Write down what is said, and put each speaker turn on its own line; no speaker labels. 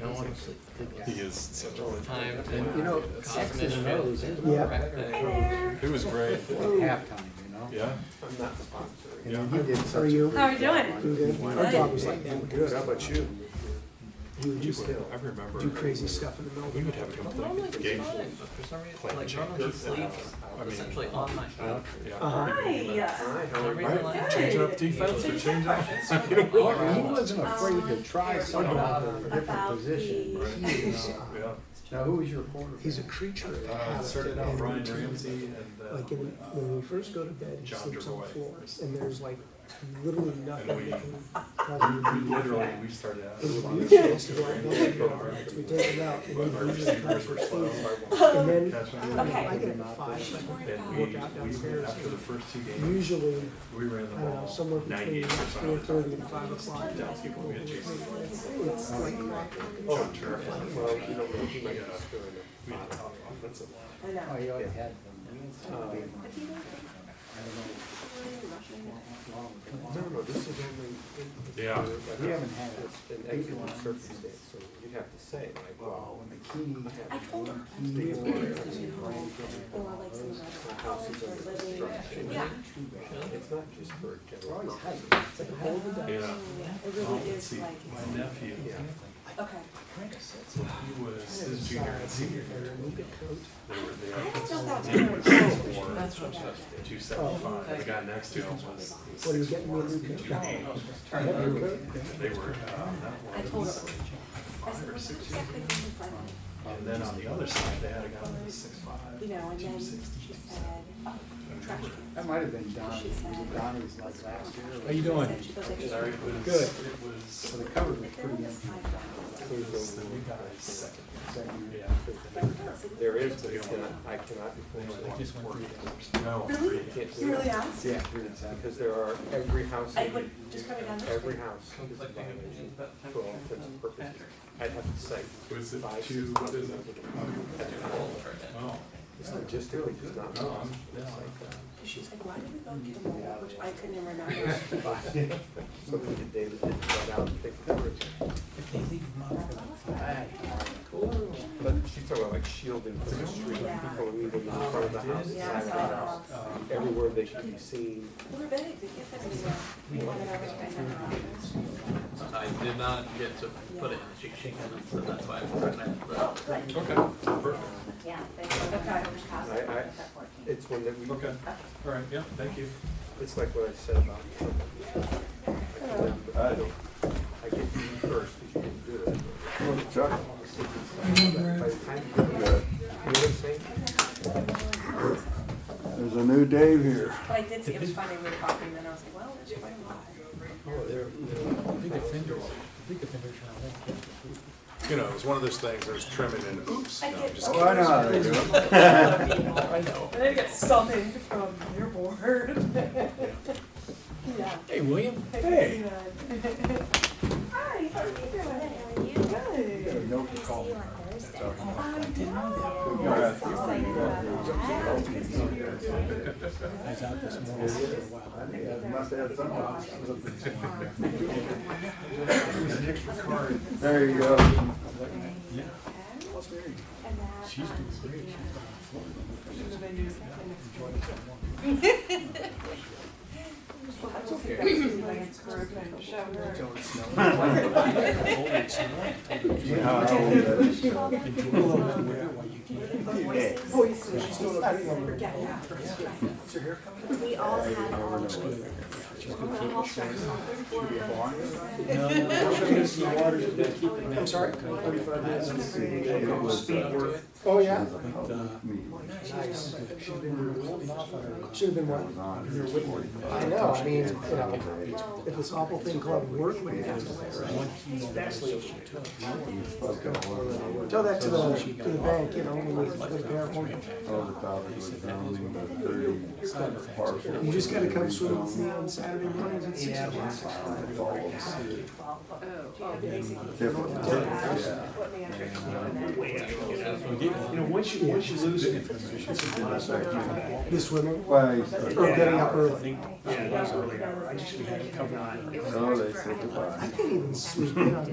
No one was
He is such a.
time
You know,
to
X's and
cognition
O's
and
is
Yeah.
correct that.
It was great.
halftime, you know?
Yeah.
I'm not sponsoring.
And he did such a
you?
great
How are you
job
doing?
on it.
Doing good? Our job was like that.
Good, how about you?
You would
You
just
were- I remember.
do crazy stuff in the
We
middle.
would have a
Normally it's
complete game.
fine, but for some reason,
Plan
like
change.
normally he sleeps
I mean-
essentially on my phone.
Yeah.
Uh-huh.
Hi, how
Hi.
For
are
some
you?
reason, like-
Change up defense or change up.
Well, He wasn't afraid to try
Um,
someone out of a different
about
position.
the-
He is, uh,
Yeah.
Now, who was your quarterback?
He's a creature of
Uh, it
habit.
started out
and
Brian
routine.
Ramsey and uh,
Like in, when we first go to bed, he
John
sleeps on the
Gervais.
floor, and there's like literally nothing.
we-
that can cause
We
him to be-
literally, we started out.
It would be
But
easy to go out and open the door, we take it out, and
our
then he's like,
receivers were slow.
and then
Catch them.
Okay.
I get up at five,
And we, we, after the first two games,
usually,
we ran the
I don't know,
ball
Uh, somewhere between
ninety-eight percent
four
of the
thirty
time.
and five o'clock.
People we had Oh, chased.
It's like clockwork.
John Turner.
Well, you know, he might not score
We had a
enough.
top offensive line.
I know.
Oh, he already had
Uh,
them.
No, no, this is only.
Yeah.
We haven't had it.
An extreme circumstance, so you'd have to say like, wow.
Well, when the key,
I told him.
key
We have
board,
been-
I mean, Brian
Or
Campbell,
like some of our
house
colleagues
is under
are living.
construction.
Yeah.
too bad.
It's not just for
They're always
general.
hiding. It's like, how
It
Yeah.
really
Let's
is
Um, see,
like,
my nephew,
Yeah.
okay.
he was his junior and senior year. They were there.
I don't know if that's.
Yeah.
correct. That's what I'm saying.
Two seventy-five, the guy next to him was
What are you
six
getting
four,
with your
two eight. They were, uh,
I
that one,
told him. I
five
said,
or
what's
six years
exactly
old.
what's in front of me?
And then on the other side, they had a guy that was six
You
five.
know, and then she said, oh, trash can.
That might have been Donnie, was it Donnie was like last year? or-
doing?
She goes, I just.
Sorry, it was.
Good.
It was,
So the cover was
If they're
pretty
on the
empty.
side. of
it was the new guy's second.
Second year.
year. Yeah.
the house, it
There is, but it's
Yeah.
not, I cannot be
They
forced
were
to
like,
walk
just
toward
working.
it.
No.
Really?
You can't
You
do
really
it,
asked?
Yeah, you're exactly.
because there are, every house,
I would just coming down this way.
every house is a
Conflicting opinions
violation
about
for all
temperature
intents and
and
purposes.
accuracy.
I'd have to cite
Was it
five, six
two, what is it?
at the
All
wall.
over again.
Oh,
It's logistically just not.
no, Oh, I'm,
possible.
yeah,
It's
like,
like, uh,
She was like, why did we go to the mall, which I couldn't even remember.
So we did David did uh, that out and take coverage. But she's talking about like shielding from the street,
Yeah.
people leaving in front of the house,
Yeah, I
side of the
saw
house,
the house.
everywhere they can be seen.
We're big, the kids have to go. One of our guys in our office.
I did not get to put it in the cheat sheet, so that's why I put it in the.
Oh, good.
okay, perfect,
Yeah, they go to
Okay.
First House,
I- I-
that's at 14.
It's one that we,
okay, all right, yeah, thank you.
it's like what I said about. Trump. I cannot- I don't- I get to you first because you didn't do it. By the time you do it, you know what I'm saying?
There's a new Dave here.
But I did see, it was funny, we were talking, and then I was like, well, it's quite a lot.
Oh,
You know, it was one of those things, there's trimming and oops.
I did.
Oh, I know how they do it.
I know.
And I get summoned from your board. Yeah.
Hey, William.
Hey.
Hi, how are you doing? How are you?
Good.
There's no call.
See you on Thursday. I
You're
know.
right.
So excited about that.
I was out this morning for a while.
There you go.
And that, um,
That's okay.
You know how old that is.
we all had our choices. We're all friends.
I'm sorry.
Oh, yeah?
Nice.
Should've been one. I know, I mean, you know, if this awful thing called work would happen. Tell that to the, to the bank, you know, with, with their home.
All the topics was down in the thirty parcel.
You just gotta come swim with me on Saturday mornings at six o'clock.
Yeah.
You know, once you, once you lose it.
The swimming,
Well, you start-
or getting up early.
Yeah, it was early hour. I just, we had it covered.
Oh, they said goodbye.
I can't even sleep in on